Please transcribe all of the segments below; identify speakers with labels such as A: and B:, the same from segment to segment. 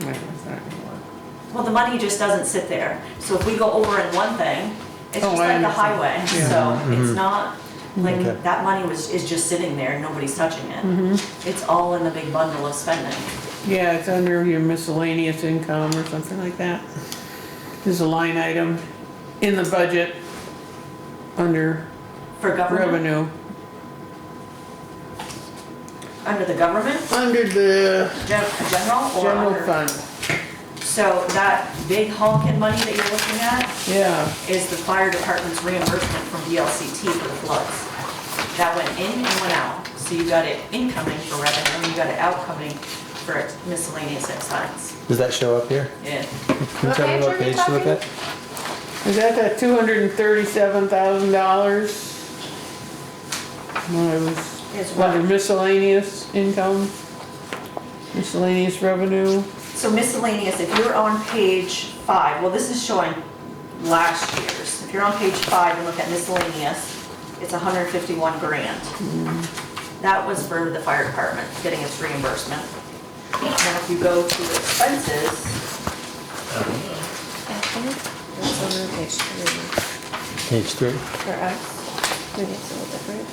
A: Wait, what's that gonna work?
B: Well, the money just doesn't sit there. So if we go over in one thing, it's
A: Oh,
B: just
A: I
B: like the
A: understand.
B: highway.
A: Yeah. Mm-hmm.
B: So it's not, like,
C: Okay.
B: that money was, is just sitting there, nobody's touching it.
A: Mm-hmm.
B: It's all in the big bundle of spending.
A: Yeah, it's under your miscellaneous income or something like that. There's a line item in the budget under
B: For government,
A: revenue.
B: under the government,
A: Under the
B: gen- general or
A: general
B: under-
A: fund,
B: So that big honking money that you're looking at
A: yeah.
B: is the fire department's reimbursement from DLCT for the floods. That went in and went out. So you got it incoming for revenue, and you got it outcoming for miscellaneous expense.
C: Does that show up here?
B: Yeah.
C: Can you tell me what page to look at?
A: Is that that two hundred and thirty-seven thousand dollars? No, it
B: It's
A: was
B: what?
A: under miscellaneous income, miscellaneous revenue.
B: So miscellaneous, if you're on page five, well, this is showing last year's. If you're on page five and look at miscellaneous, it's hundred and fifty-one grand. That was for the fire department, getting its reimbursement. Now, if you go to expenses,
D: I think that's on page three,
C: Page three.
D: for us. Maybe it's a little different.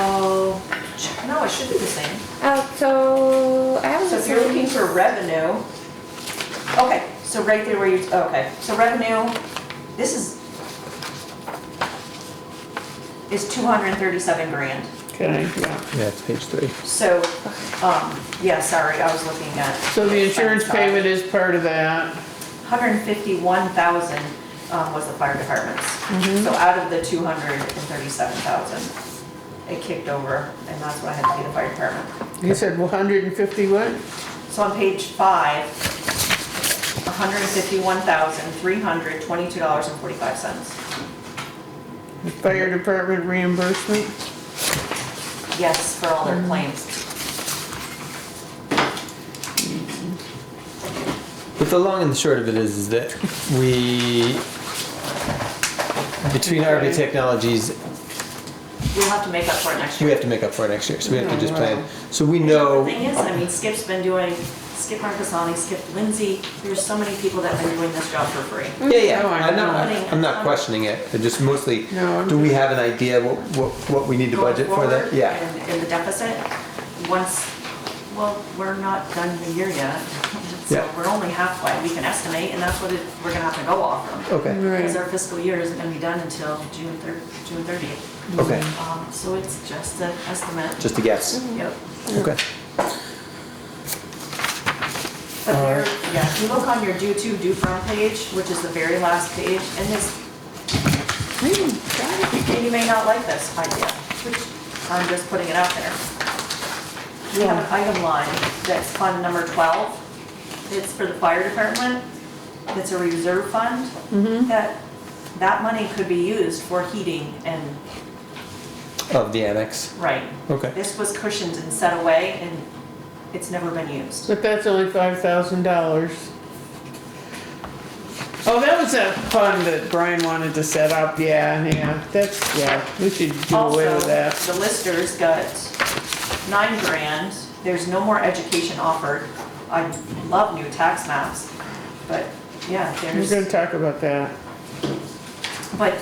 B: oh, ch- no, it should be the same.
D: Oh, so I have
B: So if you're looking for revenue, okay, so right there where you, okay, so revenue, this is, is two hundred and thirty-seven grand.
A: Okay, yeah.
C: Yeah, it's page three.
B: So, um, yeah, sorry, I was looking at.
A: So the insurance payment is part of that.
B: Hundred and fifty-one thousand, um, was the fire department's.
A: Mm-hmm.
B: So out of the two hundred and thirty-seven thousand, it kicked over, and that's what I had to pay the fire department.
A: You said one hundred and fifty what?
B: So on page five, hundred and fifty-one thousand, three hundred, twenty-two dollars and forty-five cents.
A: Fire department reimbursement?
B: Yes, for all
A: Mm-hmm.
B: their claims.
C: But the long and the short of it is, is that we, between RV Technologies,
B: We'll have to make up for it next
C: we
B: year.
C: have to make up for it next year, so we have to just plan. So we know,
B: Thing is, I mean, Skip's been doing, Skip Marcassani, Skip Lindsay, there's so many people that have been doing this job for free.
C: yeah, yeah,
A: No, I
C: I'm not,
B: know.
C: I'm not questioning it, I just mostly,
A: No, I'm
C: do we have an idea what, what, what we need to budget for that?
B: Going forward
C: Yeah,
B: and- and the deficit, once, well, we're not done the year yet.
C: Yeah.
B: So we're only halfway. We can estimate, and that's what it- we're gonna have to go off of.
C: okay,
B: Because
A: Right,
B: our fiscal year isn't gonna be done until June thir, June thirtieth.
C: okay,
B: Um, so it's just an estimate.
C: just a guess,
B: Yep.
C: okay.
B: But there, yeah, if you look on your due to, due from page, which is the very last page, and this, and you may not like this idea, which I'm just putting it out there. We have an item line that's fund number twelve. It's for the fire department. It's a reserve fund. That, that money could be used for heating and,
C: Of the annex,
B: right,
C: okay,
B: This was cushioned and set away, and it's never been used.
A: but that's only five thousand dollars. Oh, that was that fund that Brian wanted to set up, yeah, yeah, that's, yeah, we should do away
B: Also,
A: with that.
B: the listers got nine grand, there's no more education offered. I love new tax maps, but yeah,
A: We're
B: there's,
A: gonna talk about that.
B: but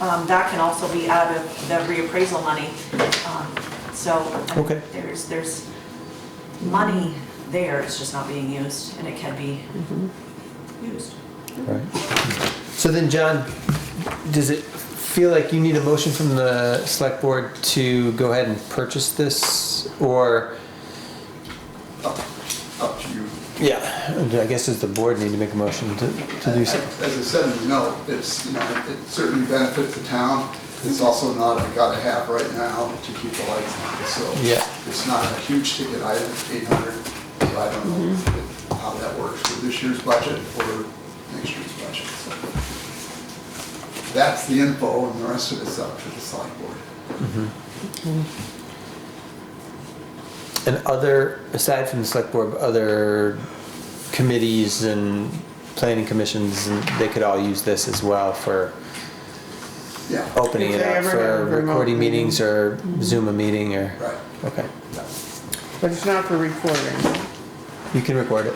B: um, that can also be out of the reappraisal money. Um, So I-
C: Okay.
B: there's, there's money there, it's just not being used, and it can be
A: Mm-hmm.
B: used.
C: alright. So then, John, does it feel like you need a motion from the select board to go ahead and purchase this, or?
E: up to you.
C: Yeah, I guess does the board need to make a motion to, to do so?
E: As I said in the note, it's, you know, it certainly benefits the town. It's also not a gotta have right now to keep the lights on, so.
C: Yeah.
E: It's not a huge ticket item, eight hundred, so I don't know if-
C: Mm-hmm.
E: how that works for this year's budget or next year's budget, so. That's the info, and the rest of it's up to the select board.
C: And other, aside from the select board, other committees and planning commissions, and they could all use this as well for
E: Yeah,
C: opening it
A: If they
C: up
A: ever have
C: for
A: a remote
C: recording meetings or Zoom a meeting or,
E: right.
C: okay.
E: yeah.
A: But it's not for recording.
C: You can record it.